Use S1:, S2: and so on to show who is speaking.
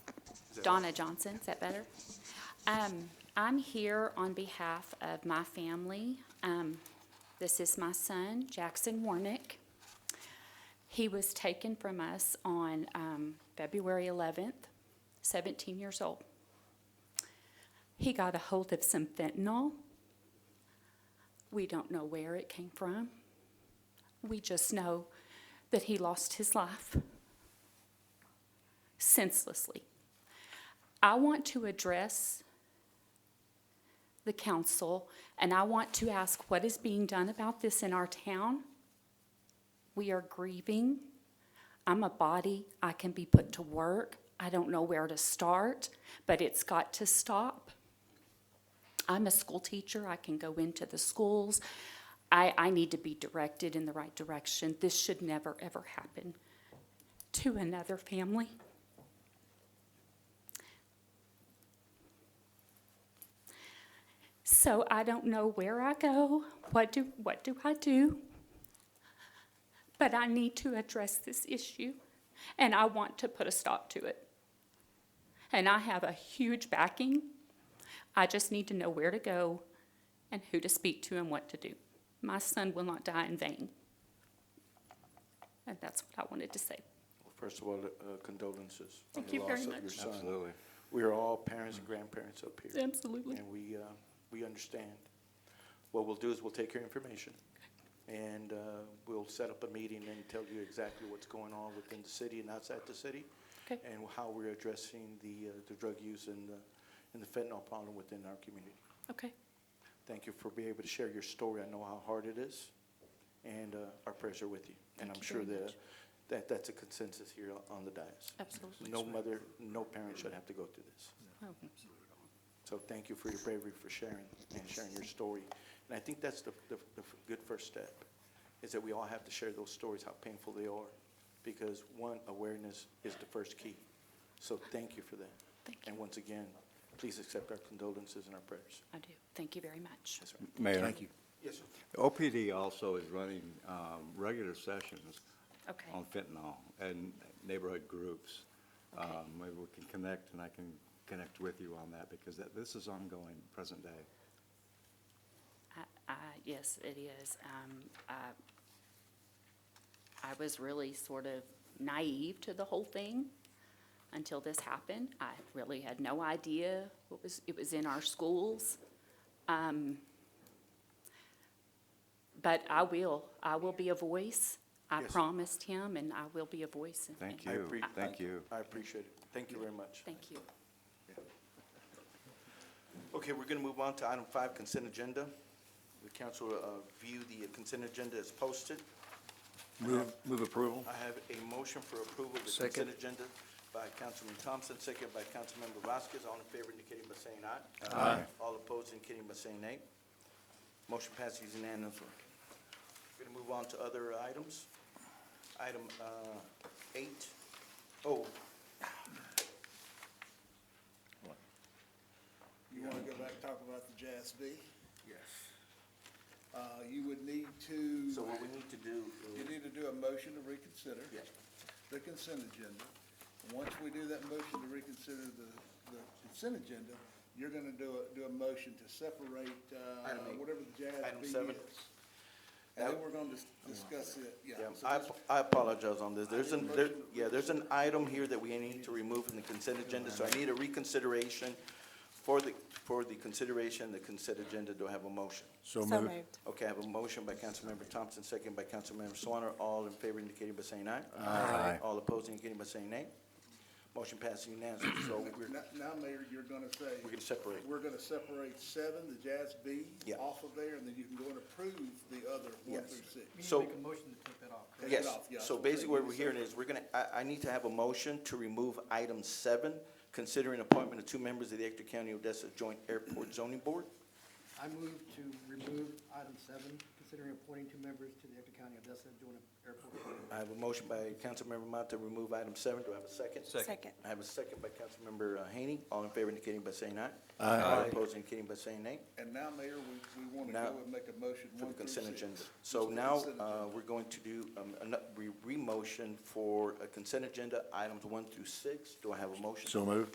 S1: Donna Johnson, is that better? Um, I'm here on behalf of my family. Um, this is my son, Jackson Warnick. He was taken from us on, um, February eleventh, seventeen years old. He got a hold of some fentanyl. We don't know where it came from. We just know that he lost his life senselessly. I want to address the council and I want to ask what is being done about this in our town. We are grieving. I'm a body, I can be put to work. I don't know where to start, but it's got to stop. I'm a school teacher, I can go into the schools. I, I need to be directed in the right direction. This should never, ever happen to another family. So I don't know where I go, what do, what do I do? But I need to address this issue, and I want to put a stop to it. And I have a huge backing. I just need to know where to go and who to speak to and what to do. My son will not die in vain. And that's what I wanted to say.
S2: First of all, uh, condolences on
S1: Thank
S2: the
S1: you very
S2: loss of your
S1: much.
S2: son. We are all parents and grandparents up here.
S1: Absolutely.
S2: And we, uh, we understand. What we'll do is we'll take your information, and uh, we'll set up a meeting and tell you exactly what's going on within the city and outside the city,
S1: Okay.
S2: and how we're addressing the, uh, the drug use and the, and the fentanyl problem within our community.
S1: Okay.
S2: Thank you for being able to share your story. I know how hard it is, and uh, our prayers are with you. And
S1: Thank
S2: I'm
S1: you
S2: sure
S1: very
S2: that,
S1: much.
S2: that that's a consensus here on the dais.
S1: Absolutely.
S2: No mother, no parent should have to go through this.
S1: Oh,
S2: So thank you for your bravery for sharing and sharing your story. And I think that's the, the, the good first step, is that we all have to share those stories, how painful they are. Because one, awareness is the first key. So thank you for that.
S1: Thank you.
S2: And once again, please accept our condolences and our prayers.
S1: I do. Thank you very much.
S2: Yes, sir.
S3: Mayor.
S2: Yes, sir.
S3: OPD also is running um, regular sessions
S1: Okay.
S3: on fentanyl and neighborhood groups. Um, Maybe we can connect, and I can connect with you on that, because that, this is ongoing, present day.
S1: I- I- Yes, it is. Um, I- I was really sort of naive to the whole thing until this happened. I really had no idea what was, it was in our schools. Um, But I will, I will be a voice. I
S2: Yes.
S1: promised him, and I will be a voice. and-
S3: Thank
S2: I
S3: you,
S2: appre-
S3: thank you.
S2: I appreciate it. Thank you very much.
S1: Thank you.
S2: Okay, we're gonna move on to item five, consent agenda. The council, uh, view the consent agenda as posted.
S4: Move, move approval?
S2: I have a motion for approval of the
S4: Second.
S2: consent agenda by Councilman Thompson, second by Councilmember Vasquez. All in favor indicating by saying aye. Aye. All opposed indicating by saying nay. Motion passes unanimously. We're gonna move on to other items. Item, uh, eight, oh.
S5: You want to go back and talk about the JSB? Yes. Uh, you would need to,
S2: So what we need to do
S5: you need to do a motion to reconsider.
S2: Yes.
S5: The consent agenda. And Once we do that motion to reconsider the, the consent agenda, you're gonna do a, do a motion to separate, uh,
S2: Item eight.
S5: whatever the
S2: Item
S5: JSB is.
S2: seven. Oh
S5: And then we're gonna dis- discuss it, yeah.
S2: Yeah,
S5: So
S2: I,
S5: that's-
S2: I apologize on this. There's an,
S5: didn't
S2: there,
S5: motion-
S2: yeah, there's an item here that we need to remove from the consent agenda, so I need a reconsideration for the, for the consideration, the consent agenda. Do I have a motion?
S4: So
S6: So
S4: moved.
S6: moved.
S2: Okay, I have a motion by Councilmember Thompson, second by Councilmember Swanner. All in favor indicating by saying aye.
S4: Aye.
S2: All opposed indicating by saying nay. Motion passed unanimously, so we're,
S5: Now, now, Mayor, you're gonna say.
S2: We're gonna separate.
S5: We're gonna separate seven, the JASB.
S2: Yeah.
S5: Off of there, and then you can go and approve the other one
S2: Yes.
S5: through six.
S2: so.
S5: Take it
S2: Yes,
S5: off,
S2: so
S5: yeah, that's what I'm
S2: basically what
S5: saying.
S2: we're hearing is, we're gonna, I, I need to have a motion to remove item seven, considering appointment of two members of the Ector County Odessa Joint Airport Zoning Board.
S7: I move to remove item seven, considering appointing two members to the Ector County Odessa Joint Airport. Authority.
S2: I have a motion by Councilmember Mata to remove item seven, do I have a second?
S6: Second.
S2: I have a second by Councilmember uh, Haney, all in favor indicating by saying aye.
S4: Aye.
S2: All opposed indicating by saying nay,
S5: And now, Mayor, we, we wanna
S2: Now,
S5: go and make a motion
S2: for the
S5: one through six.
S2: consent agenda. So
S5: For the
S2: now,
S5: consent
S2: uh,
S5: agenda.
S2: we're going to do, um, ano- re- re-motion for a consent agenda, items one through six, do I have a motion?
S4: So moved.